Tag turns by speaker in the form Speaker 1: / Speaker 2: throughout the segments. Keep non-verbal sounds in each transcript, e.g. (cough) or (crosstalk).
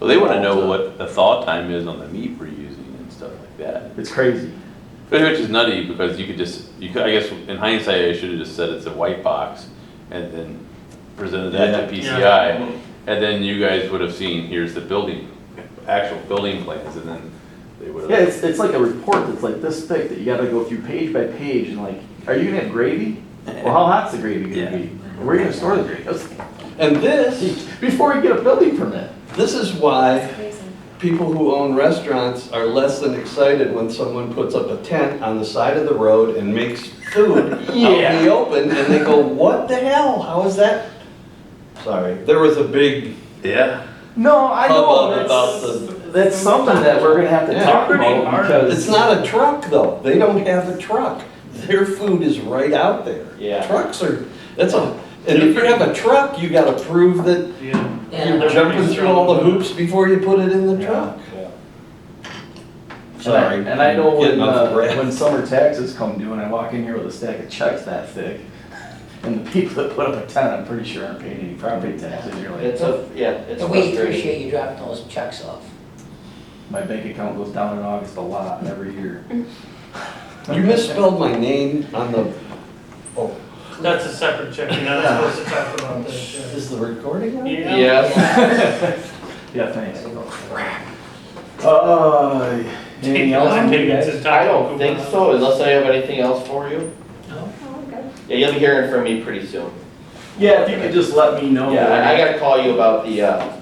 Speaker 1: Well, they wanna know what the thaw time is on the meat we're using and stuff like that.
Speaker 2: It's crazy.
Speaker 1: Which is nutty because you could just, you could, I guess in hindsight, I should have just said it's a white box and then presented that to
Speaker 3: Yeah.
Speaker 1: PCI. And then you guys would have seen, here's the building, actual building plans and then they would
Speaker 2: Yeah,
Speaker 1: have.
Speaker 2: it's, it's like a report that's like this thick that you gotta go through page by page and like, are you gonna have gravy? Well, how hot's the gravy
Speaker 1: Yeah.
Speaker 2: gonna be? Where are you gonna store the gravy? I was like,
Speaker 3: And this,
Speaker 2: Before we get a building permit.
Speaker 3: this is why
Speaker 4: Crazy.
Speaker 3: people who own restaurants are less than excited when someone puts up a tent on the side of the road and makes
Speaker 2: (laughs)
Speaker 3: food out in
Speaker 2: Yeah.
Speaker 3: the open, and they go, what the hell, how is that? Sorry, there was a big
Speaker 1: Yeah.
Speaker 2: No, I
Speaker 3: hubbub
Speaker 2: know,
Speaker 3: about
Speaker 2: that's,
Speaker 3: the,
Speaker 2: that's something that we're gonna have to
Speaker 3: Yeah.
Speaker 2: talk
Speaker 5: Pretty
Speaker 2: about
Speaker 5: hard.
Speaker 2: because.
Speaker 3: it's not a truck though, they don't have a truck. Their food is right out there.
Speaker 2: Yeah.
Speaker 3: Trucks are, that's a, and if you have a truck, you gotta prove that
Speaker 5: Yeah.
Speaker 3: You're jumping through all the hoops before you put it in the truck.
Speaker 2: And I-
Speaker 3: Sorry.
Speaker 2: And I know when,
Speaker 3: Getting off
Speaker 2: uh,
Speaker 3: breath.
Speaker 2: when
Speaker 3: (laughs)
Speaker 2: summer taxes come due and I walk in here with a stack of checks that thick, and the people that put up a tent, I'm pretty sure aren't paying any property taxes, you're like,
Speaker 6: It's a, yeah, it's
Speaker 7: And we
Speaker 6: frustrating.
Speaker 7: appreciate you dropping those checks off.
Speaker 2: my bank account goes down in August a lot every year. (laughs)
Speaker 3: You misspelled my name on the, oh,
Speaker 5: That's a separate check, you're not supposed to talk about that.
Speaker 3: is the recording on?
Speaker 5: Yeah.
Speaker 2: Yeah, thanks. Uh, anything else? from you guys?
Speaker 6: I don't think so, unless I have anything else for you.
Speaker 4: Oh, okay.
Speaker 6: Yeah, you'll be hearing from me pretty soon.
Speaker 2: Yeah, if you could just let me know.
Speaker 6: Yeah, I I gotta call you about the, uh,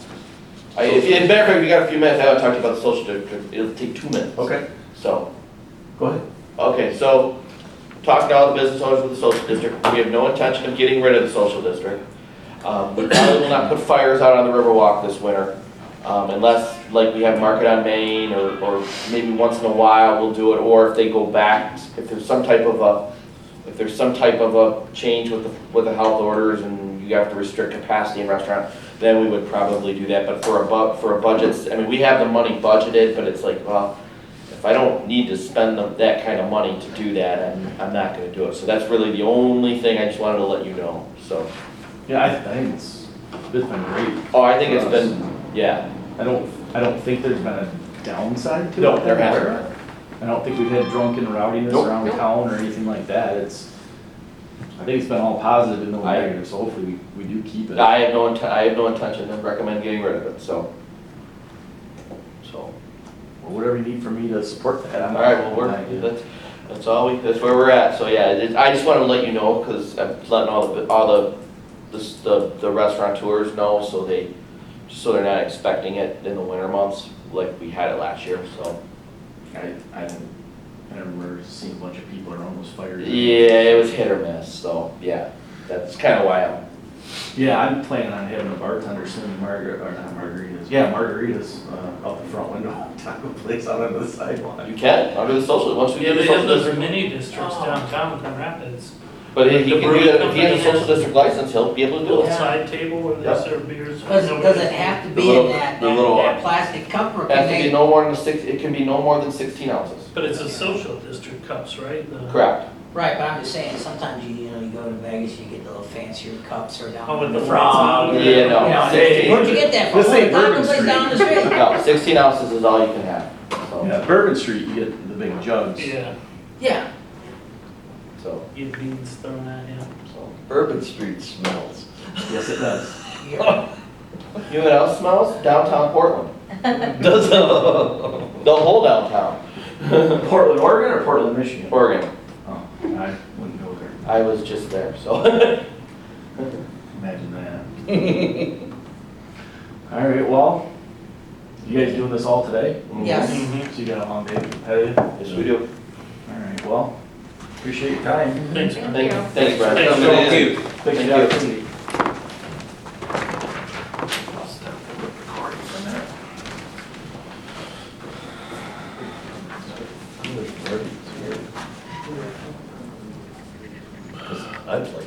Speaker 6: I, if, in matter of fact, we got a few minutes, I wanna talk to you about the social district, it'll take two minutes.
Speaker 2: Okay,
Speaker 6: So,
Speaker 2: go ahead.
Speaker 6: Okay, so, talking to all the business owners of the social district, we have no intention of getting rid of the social district. Um, we probably will not put fires out on the Riverwalk this winter, um, unless, like, we have Market on Main, or, or maybe once in a while we'll do it, or if they go back, if there's some type of a, if there's some type of a change with the, with the health orders and you have to restrict capacity in restaurant, then we would probably do that, but for a bu, for a budget, I mean, we have the money budgeted, but it's like, well, if I don't need to spend the- that kind of money to do that, I'm, I'm not gonna do it. So that's really the only thing I just wanted to let you know, so.
Speaker 2: Yeah, I I think it's, it's been great.
Speaker 6: Oh, I think it's been, yeah,
Speaker 2: I don't, I don't think there's been a downside to it.
Speaker 6: no, there
Speaker 2: that
Speaker 6: hasn't
Speaker 2: we're-
Speaker 6: been.
Speaker 2: I don't think we've had drunken rowdiness
Speaker 6: Nope.
Speaker 2: around
Speaker 6: Nope.
Speaker 2: town or anything like that, it's, I think it's been all positive and no
Speaker 6: I-
Speaker 2: negative, so hopefully we, we do keep it.
Speaker 6: I have no inten, I have no intention of recommend getting rid of it, so. So,
Speaker 2: Or whatever you need for me to support that, I'm.
Speaker 6: all right, well,
Speaker 2: I-
Speaker 6: we're, that's, that's all we, that's where we're at. So, yeah, it- I just wanted to let you know, cause I'm letting all the, all the, this- the, the restaurateurs know, so they, just so they're not expecting it in the winter months, like we had it last year, so.
Speaker 2: I, I don't, I never remember seeing a bunch of people around those fires.
Speaker 6: Yeah, it was hit or miss, so, yeah, that's kind of why I'm,
Speaker 2: Yeah, I'm planning on having a bartender send me margar, or not margaritas, yeah, margaritas, uh, out the front window, (laughs) taco place out on the sidewalk.
Speaker 6: you can, under the social, once we
Speaker 5: Yeah,
Speaker 6: get the
Speaker 5: they
Speaker 6: social
Speaker 5: have those
Speaker 6: district.
Speaker 5: mini districts
Speaker 7: Oh.
Speaker 5: downtown, Grand Rapids,
Speaker 6: But if
Speaker 5: the
Speaker 6: he can do
Speaker 5: brewery
Speaker 6: that, if he has a
Speaker 5: company
Speaker 6: social
Speaker 5: has-
Speaker 6: district license, he'll be able to do
Speaker 5: little
Speaker 6: it.
Speaker 5: side table where
Speaker 6: Yeah.
Speaker 5: they serve beers.
Speaker 7: Does, does it have to
Speaker 1: The
Speaker 7: be in
Speaker 1: little-
Speaker 7: that,
Speaker 1: the
Speaker 7: that
Speaker 1: little-
Speaker 7: that plastic cup or can
Speaker 6: Has to be
Speaker 7: they?
Speaker 6: no more than six, it can be no more than sixteen ounces,
Speaker 5: But it's a social district cups, right? The-
Speaker 6: correct?
Speaker 7: Right, but I'm just saying, sometimes you, you know, you go to Vegas, you get the little fancier cups or down.
Speaker 5: Oh, with the
Speaker 7: frog.
Speaker 5: frogs on it.
Speaker 6: Yeah,
Speaker 7: You know,
Speaker 6: no,
Speaker 7: Where'd
Speaker 6: sixteen,
Speaker 7: you get that from?
Speaker 2: This
Speaker 7: Oh, the
Speaker 2: ain't
Speaker 7: taco
Speaker 2: Bourbon
Speaker 7: place
Speaker 2: Street.
Speaker 7: down the street.
Speaker 6: no, sixteen ounces is all you can have, so,
Speaker 2: Yeah, Bourbon Street, you get the big jugs.
Speaker 5: Yeah,
Speaker 7: Yeah,
Speaker 6: so,
Speaker 5: get beans thrown at you.
Speaker 6: so.
Speaker 3: Urban Street smells.
Speaker 2: Yes, it does.
Speaker 7: yeah.
Speaker 6: You know what else smells? Downtown (laughs) Portland,
Speaker 3: Does it?
Speaker 6: the whole downtown,
Speaker 2: (laughs) Portland, Oregon or Portland, Michigan?
Speaker 6: Oregon,
Speaker 2: Oh, I wouldn't go there.
Speaker 6: I was just there, so. (laughs)
Speaker 2: Imagine that. (laughs) All right, well, you guys doing this all today? Mm-hmm.
Speaker 7: Yes.
Speaker 2: So
Speaker 5: Mhm.
Speaker 2: you got a long day ahead of you? All
Speaker 6: Yes, we do,
Speaker 2: right, well, appreciate your
Speaker 7: Mm-hmm.
Speaker 2: time.
Speaker 5: Thanks, man.
Speaker 6: thank,
Speaker 4: you.
Speaker 6: thanks, Brad.
Speaker 5: Thanks,
Speaker 6: Coming in.
Speaker 5: Joel.
Speaker 2: Thanks for
Speaker 6: Thank
Speaker 2: the
Speaker 6: you.
Speaker 2: opportunity. I'll stop the recording for a minute.
Speaker 3: I'd like